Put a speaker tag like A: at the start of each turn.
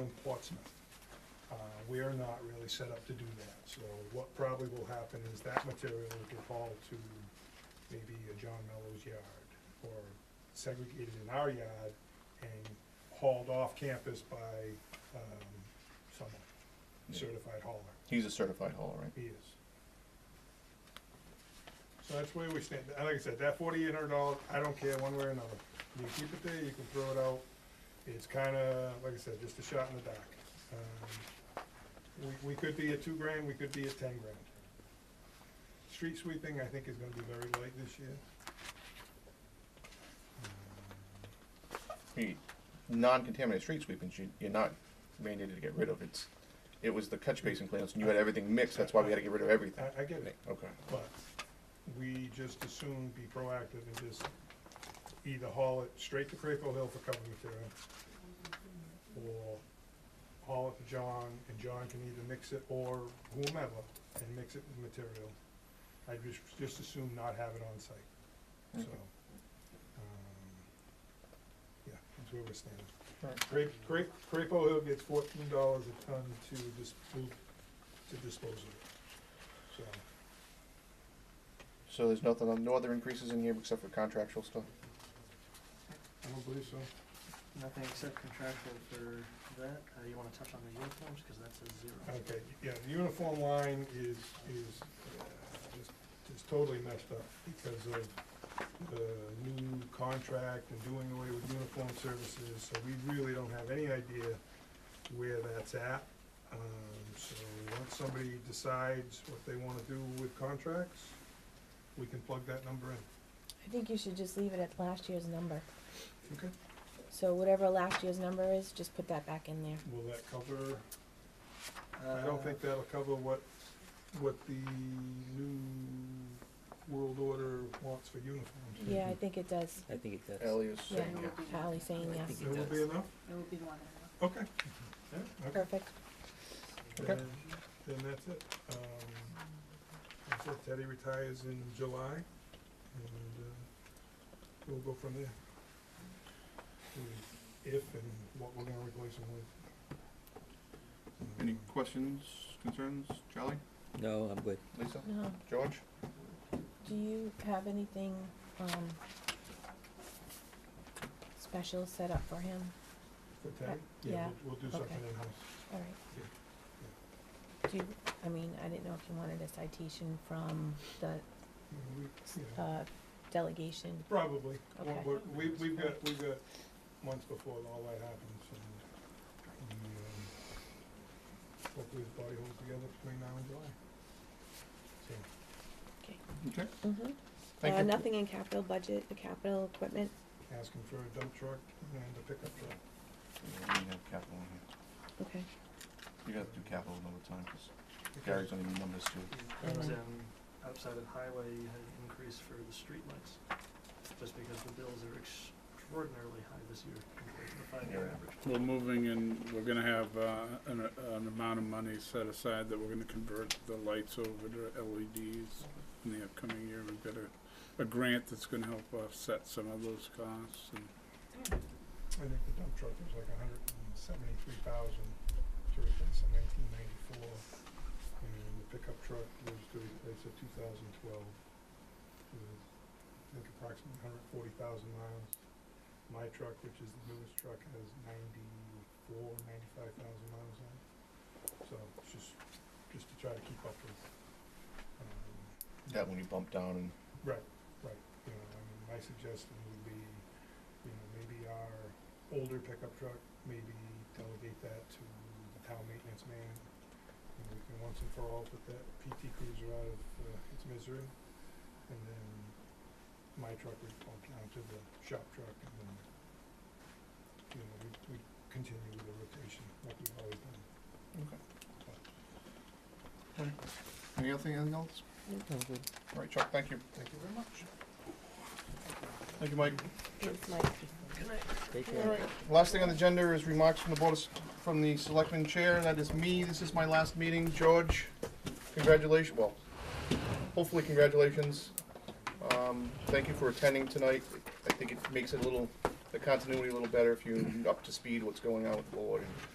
A: in Portsmouth. Uh, We are not really set up to do that, so what probably will happen is that material will get hauled to maybe a John Mellows yard, or segregated in our yard and hauled off campus by um, someone, certified hauler.
B: He's a certified hauler, right?
A: He is. So that's where we stand, and like I said, that forty-eight hundred dollar, I don't care one way or another, you can keep it there, you can throw it out, it's kinda, like I said, just a shot in the dark. Um, We, we could be at two grand, we could be at ten grand. Street sweeping, I think, is gonna be very light this year.
B: You- Non-contaminated street sweepings, you, you're not mandated to get rid of, it's, it was the catch basin cleanups, and you had everything mixed, that's why we had to get rid of everything.
A: Um, I, I get it,
B: Okay.
A: but we just as soon be proactive and just either haul it straight to Crapo Hill for cover material, or haul it to John, and John can either mix it or whomever, and mix it with material. I just, just assume not have it on site, so,
B: Okay.
A: um, yeah, that's where we're standing.
B: Alright.
A: Crape, Crape, Crapo Hill gets fourteen dollars a ton to dis, to dispose of it, so.
B: So there's nothing, on no other increases in here except for contractual stuff?
A: I don't believe so.
C: Nothing except contractual for that. Uh, you wanna touch on the uniforms, cause that's a zero.
A: Okay, yeah, the uniform line is, is, uh, just- just totally messed up because of the new contract and doing away with uniform services, so we really don't have any idea where that's at. Um, so once somebody decides what they wanna do with contracts, we can plug that number in.
D: I think you should just leave it at last year's number.
A: Okay.
D: So whatever last year's number is, just put that back in there.
A: Will that cover,
C: Uh,
A: I don't think that'll cover what, what the new world order wants for uniforms.
D: Yeah, I think it does.
E: I think it does.
B: Ellie is
D: Yeah,
B: saying, yeah.
D: Ally's saying
E: I
D: yes.
E: think
A: It will be enough?
F: It would be more than enough.
A: Okay. Okay.
D: Perfect.
A: Then then that's it. Um, that's it. Teddy retires in July, and, uh, we'll go from there. Hmm, If and what we're gonna replace him with.
B: Any
A: Um,
B: questions, concerns, Charlie,
E: No, I'm good.
B: Lisa,
D: No,
B: George?
D: do you have anything, um, special set up for him?
A: For Teddy?
D: Yeah.
A: We'll, we'll do something
D: Okay.
A: in-house.
D: All right. Do you, I mean, I didn't know if you wanted a citation from the,
A: We- yeah.
D: uh, delegation.
A: Probably. Well,
D: Okay.
A: we're- We, we've got, we've got months before all that happens, and, we, um, hopefully the body holds together between now and July. So,
B: Okay.
D: Mm-hmm.
B: Thank
D: Uh,
B: you.
D: nothing in capital budget, the capital equipment,
A: asking for a dump truck and a pickup truck.
B: Yeah, we have capital in here.
D: okay.
B: You gotta do capital another time, cause Gary's on the numbers too.
C: And,
A: Alright.
C: um, outside of highway, you had an increase for the streetlights, just because the bills are extraordinarily high this year compared to the five-year
B: Yeah.
C: average.
G: We're moving and we're gonna have uh, an, an amount of money set aside that we're gonna convert the lights over to LEDs in the upcoming year. We've got a, a grant that's gonna help offset some of those costs and
A: I think the dump truck was like a hundred and seventy-three thousand to replace a nineteen ninety-four, and the pickup truck was to replace a two thousand twelve with, I think approximately hundred and forty thousand miles. My truck, which is the newest truck, has ninety-four, ninety-five thousand miles on it, so it's just, just to try to keep up with, um,
B: That when you bump down and
A: Right, right, you know, I mean, Um, my suggestion would be, you know, maybe our older pickup truck, maybe delegate that to the town maintenance man. And we can once and for all put that PT cruiser out of, uh, its misery, and then my truck would bump down to the shop truck, and then, you know, we, we continue with the rotation like we've always done.
B: Any other thing, anything else? All right, Chuck, thank you.
A: Thank you very much.
B: Thank you, Mike.
D: Thanks, Mike.
E: Take
B: All
E: care.
B: right, last thing on the agenda is remarks from the board, of s- from the selectman chair, that is me, this is my last meeting, George, congratulations, well, hopefully congratulations. Um, thank you for attending tonight, I think it makes it a little, the continuity a little better if you're up to speed what's going on with the board and